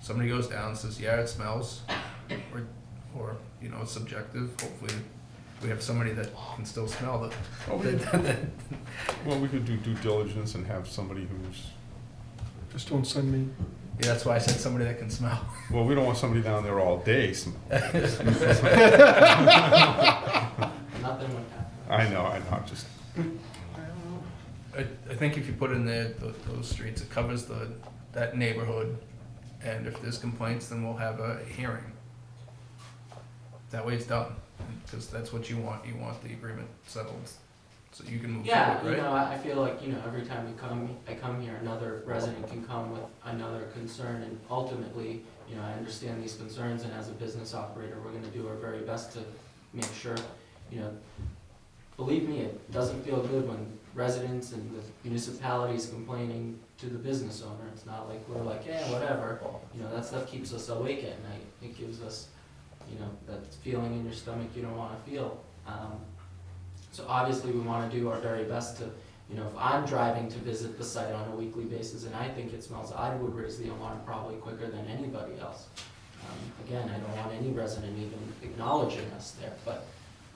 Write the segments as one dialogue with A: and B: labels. A: somebody goes down, says, yeah, it smells, or, or, you know, it's subjective, hopefully, we have somebody that can still smell it.
B: Okay. Well, we could do due diligence and have somebody who's,
C: Just don't send me.
A: Yeah, that's why I said somebody that can smell.
B: well, we don't want somebody down there all day. sm-
D: Nothing would happen.
B: I know, I know, I'm just,
A: I, I think if you put in there those, those streets, it covers the, that neighborhood, and if there's complaints, then we'll have a hearing. That way it's done, because that's what you want, you want the agreement settled, so you can move
D: Yeah, you
A: forward,
D: know,
A: right?
D: I I feel like, you know, every time we come, I come here, another resident can come with another concern, and ultimately, you know, I understand these concerns, and as a business operator, we're gonna do our very best to make sure, you know, believe me, it doesn't feel good when residents and the municipalities complaining to the business owner, it's not like we're like, yeah, whatever, you know, that stuff keeps us awake at night, it gives us, you know, that feeling in your stomach you don't wanna feel, um, so obviously, we want to do our very best to, you know, if I'm driving to visit the site on a weekly basis and I think it smells, I would raise the alarm probably quicker than anybody else. Um, Again, I don't want any resident even acknowledging us there, but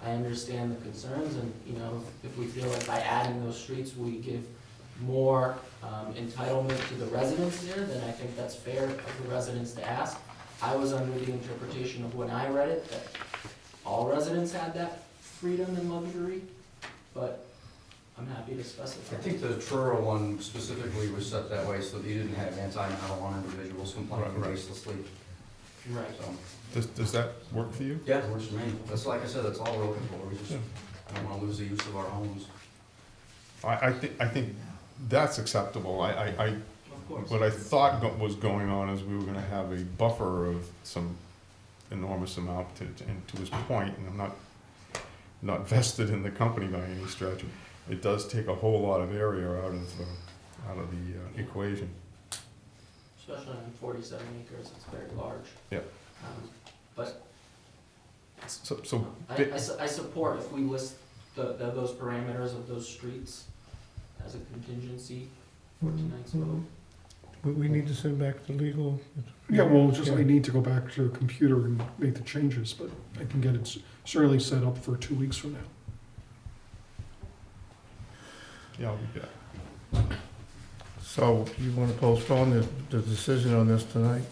D: I understand the concerns and, you know, if we feel like by adding those streets, we give more um, entitlement to the residents there, then I think that's fair of the residents to ask. I was under the interpretation of when I read it that all residents had that freedom and luxury, but I'm happy to
E: I
D: specify.
E: think the Truro one specifically was set that way so that you didn't have anti-marijuana individuals complaining
B: Right, right.
E: baselessly,
D: Right.
E: so.
B: does, does that work for you?
E: Yeah, it works for me. That's like I said, that's all we're looking for. We just don't wanna lose the use of our homes.
B: I, I think, I think that's acceptable. I, I, I,
D: Of course.
B: what I thought go- was going on is we were gonna have a buffer of some enormous amount to, to- and to his point, and I'm not, not vested in the company by any stretch. It does take a whole lot of area out of, uh, out of the uh, equation.
D: Especially on forty-seven acres, it's very large.
B: Yeah.
D: Um, But
B: So, so,
D: I,
B: bi-
D: I su- I support if we list the, the- those parameters of those streets as a contingency for tonight's
B: Mm-hmm.
D: vote.
F: We, we need to send back the legal.
C: Yeah, well, just, I need to go back to the computer and make the changes, but I can get it s- certainly set up for two weeks from now.
B: yeah, I'll be back.
F: So you want to postpone the, the decision on this tonight?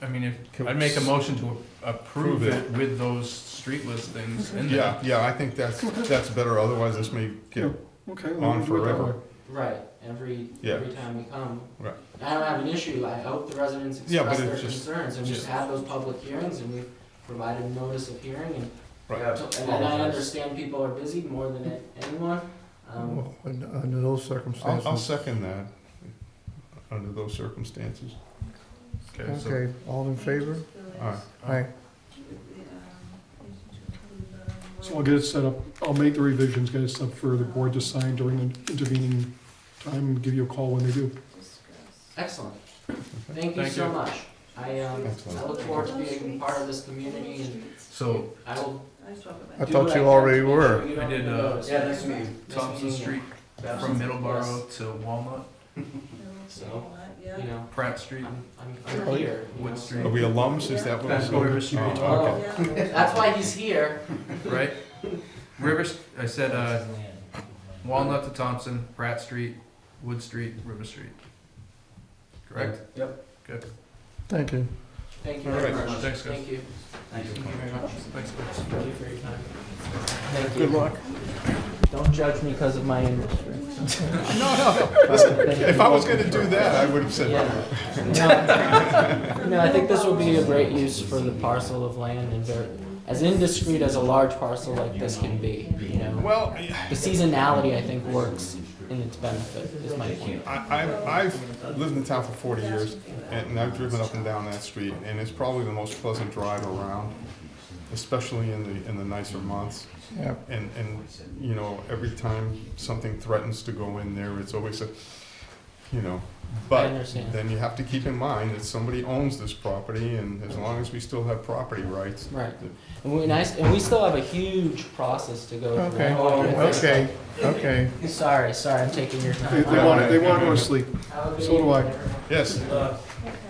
A: I mean, if,
B: Can
A: I'd make a
B: we-
A: motion to approve
B: Prove it.
A: it with those street listings in there.
B: Yeah, yeah, I think that's, that's better, otherwise this may get,
C: Okay. well,
B: On
C: we'll do it that
B: forever.
C: way.
D: Right, every,
B: Yeah.
D: every time we come.
B: Right.
D: I don't have an issue, I hope the residents
B: Yeah, but
D: express their
B: it's just-
D: concerns, and we've
B: just-
D: had those public hearings, and we've provided notice of hearing, and
B: right,
E: Yeah,
D: And I understand people are busy more than a- anyone, um,
F: Well, un- Under those
B: I'll, I'll
F: circumstances.
B: second that, under those circumstances.
A: Okay, so,
F: Okay, all in favor?
B: All right,
F: Aye.
C: So I'll get it set up, I'll make the revisions, get it set up for the board to sign during the intervening time, and give you a call when they do.
D: excellent. Thank you
A: Thank
D: so
A: you.
D: much. I, um, I
B: Excellent.
D: look forward to being part of this community and
A: so
D: I will
F: I
D: do
F: thought
D: what
F: you
D: I can
F: already
D: to make
F: were.
D: sure you
A: I
D: don't
A: did, uh,
D: get noticed.
E: Yeah, nice to meet you.
A: Thompson
D: meeting you.
A: Street from Middleborough to Walnut,
D: So, you know,
A: Pratt Street,
D: I'm, I'm, I'm
F: Oh,
D: here, you
A: Wood
D: know,
A: Street.
B: are we alums, is that what? we're
A: That's what we were shooting
B: saying?
A: for.
B: Oh, okay.
D: That's why he's here.
A: right? Rivers, I said, uh, Walnut to Thompson, Pratt Street, Wood Street, River Street. Correct?
F: Thank you.
D: Thank you
B: All
D: very
B: right.
D: much.
A: Thanks, guys.
D: Thank you.
E: Thank you.
D: very much.
A: Thanks, guys.
D: Thank you for your time. Thank you.
F: Good luck.
D: Don't judge me because of my industry.
B: No, no,
D: Thank
B: if I
D: you.
B: was gonna do that, I would have said,
D: Yeah. No, I think this will be a great use for the parcel of land and very, as indiscreet as a large parcel like this can be, you know.
B: well, I,
D: The seasonality, I think, works in its benefit, is my point.
B: I, I've lived in town for forty years, and I've driven up and down that street, and it's probably the most pleasant drive around, especially in the, in the nicer months.
F: Yeah,
B: And, and, you know, every time something threatens to go in there, it's always a, you know,
D: I
B: but
D: understand.
B: then you have to keep in mind that somebody owns this property, and as long as we still have property rights,
D: Right. And we, and I, and we still have a huge process to go through.
F: okay, okay, okay.
D: Sorry, sorry, I'm taking your
C: They,
D: time.
C: they wanna, they wanna go to sleep,
D: Have a good
C: so do I.
D: evening, everyone.
B: yes,
D: Good luck.